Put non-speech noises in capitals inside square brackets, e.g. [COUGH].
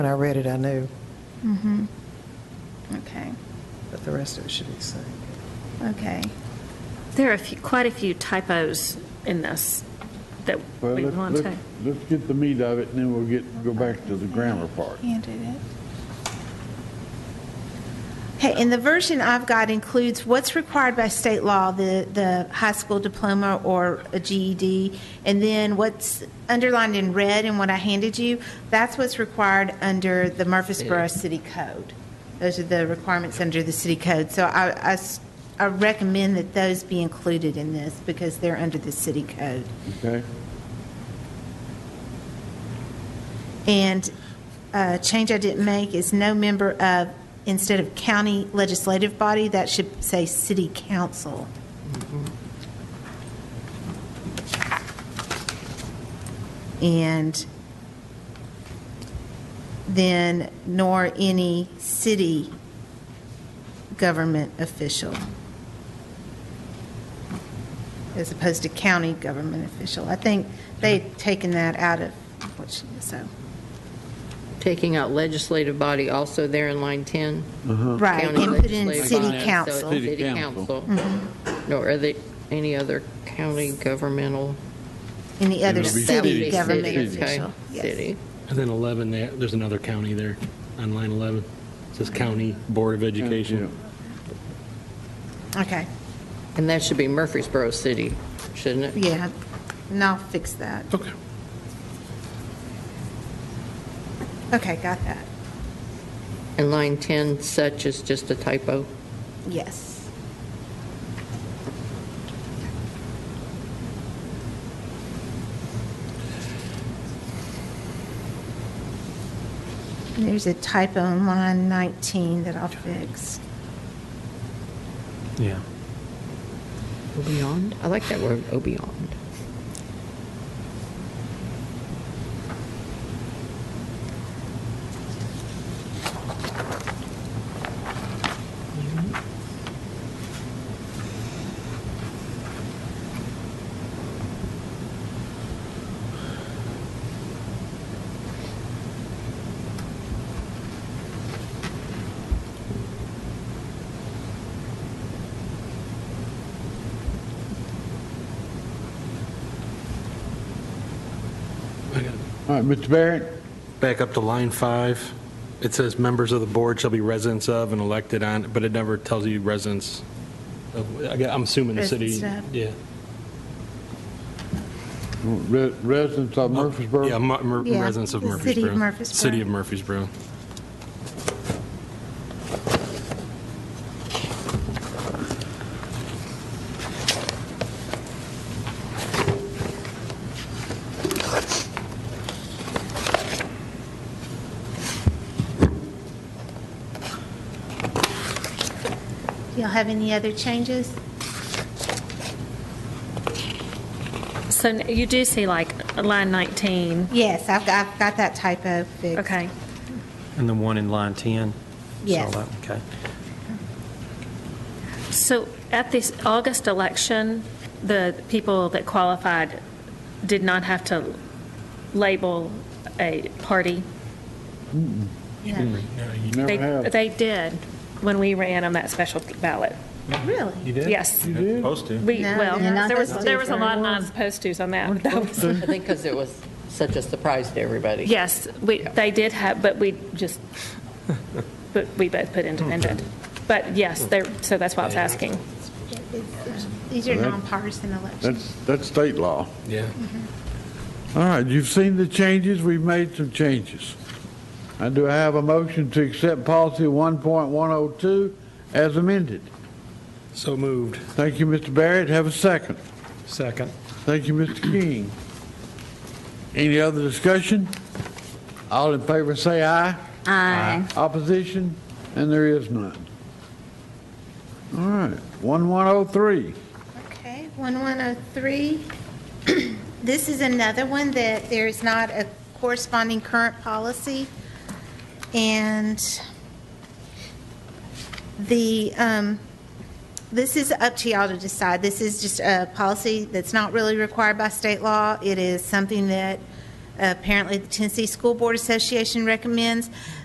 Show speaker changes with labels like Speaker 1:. Speaker 1: When I read it, I knew,
Speaker 2: Mm-hmm. Okay,
Speaker 1: but the rest of it should be the same.
Speaker 2: okay.
Speaker 3: There are a few, quite a few typos in this that
Speaker 4: Well,
Speaker 3: we
Speaker 4: let's-
Speaker 3: want
Speaker 4: let's-
Speaker 3: to.
Speaker 4: Let's get the meat of it, and then we'll get, go back to the grammar part.
Speaker 2: Handed it. Okay, and the version I've got includes what's required by state law, the, the high school diploma or a GED, and then what's underlined in red in what I handed you, that's what's required under the Murfreesboro City Code. Those are the requirements under the city code. So I, I s- I recommend that those be included in this because they're under the city code.
Speaker 4: Okay?
Speaker 2: And a change I didn't make is no member of, instead of county legislative body, that should say city council. And then nor any city government official, as opposed to county government official. I think they've taken that out of what she, so.
Speaker 5: Taking out legislative body also there in line 10?
Speaker 2: Right,
Speaker 5: County
Speaker 2: and put in
Speaker 5: legislative
Speaker 2: city
Speaker 5: body, so it's
Speaker 2: council.
Speaker 4: Uh-huh.
Speaker 2: Mm-hmm.
Speaker 4: City
Speaker 5: City
Speaker 4: council.
Speaker 5: council. Nor are there any other county governmental?
Speaker 2: Any other
Speaker 4: It'll be
Speaker 2: city
Speaker 4: city.
Speaker 2: government
Speaker 5: City, okay,
Speaker 2: official. Yes.
Speaker 5: City.
Speaker 6: And then 11, there- there's another county there on line 11. It says County Board of
Speaker 4: Yeah.
Speaker 6: Education.
Speaker 2: Okay,
Speaker 5: And that should be Murfreesboro City, shouldn't it?
Speaker 2: yeah, and I'll fix that.
Speaker 6: Okay.
Speaker 2: Okay, got that.
Speaker 5: And line 10, such is just a typo.
Speaker 2: Yes. There's a typo on line 19 that I'll fix.
Speaker 6: Yeah.
Speaker 5: Beyond? I like that word,
Speaker 4: [LAUGHS]
Speaker 5: oh, beyond.
Speaker 6: I got it.
Speaker 4: All right, Mr. Barrett?
Speaker 6: Back up to line five. It says members of the board shall be residents of and elected on, but it never tells you residents. of- I gue- I'm assuming the city.
Speaker 2: Residents of.
Speaker 6: Yeah.
Speaker 4: Re- Residents of Murfreesboro?
Speaker 6: Uh, Yeah, Mu- Mur-
Speaker 2: Yeah,
Speaker 6: residents of
Speaker 2: the
Speaker 6: Murfreesboro.
Speaker 2: city of Murfreesboro.
Speaker 6: City of Murfreesboro.
Speaker 2: Y'all have any other changes?
Speaker 3: So n- you do see like line 19,
Speaker 2: Yes, I've got, I've got that typo fixed.
Speaker 3: okay.
Speaker 7: And the one in line 10?
Speaker 2: Yes.
Speaker 7: Saw that, Okay.
Speaker 3: So at this August election, the people that qualified did not have to label a party?
Speaker 2: Yeah.
Speaker 4: Never
Speaker 3: They-
Speaker 4: have.
Speaker 3: They did, when we ran on that special ballot.
Speaker 2: Really?
Speaker 3: Yes.
Speaker 4: You did?
Speaker 3: We,
Speaker 2: No,
Speaker 3: well,
Speaker 2: they're not
Speaker 3: there was,
Speaker 2: supposed to.
Speaker 3: there was a lot of non-supposed tos on that. That was-
Speaker 5: I think because it was such a surprise to everybody.
Speaker 3: Yes, we, they did have, but we just, but we both put independent. But yes, there, so that's why I was asking.
Speaker 2: It's, um, These are
Speaker 4: That-
Speaker 2: nonpartisan elections.
Speaker 4: That's, that's state law.
Speaker 6: Yeah.
Speaker 4: All right, you've seen the changes, we've made some changes. I do have a motion to accept policy 1.102 as amended.
Speaker 6: So moved.
Speaker 4: Thank you, Mr. Barrett, have a second.
Speaker 7: Second.
Speaker 4: Thank you, Mr. King. Any other discussion? All in favor say aye. Aye. Opposition? And there is none. All right, 1103.
Speaker 2: Okay, 1103. [CLEARS THROAT] This is another one that there is not a corresponding current policy. And the, um, this is up to y'all to decide. This is just a policy that's not really required by state law. It is something that uh, Apparently, the Tennessee School Board Association recommends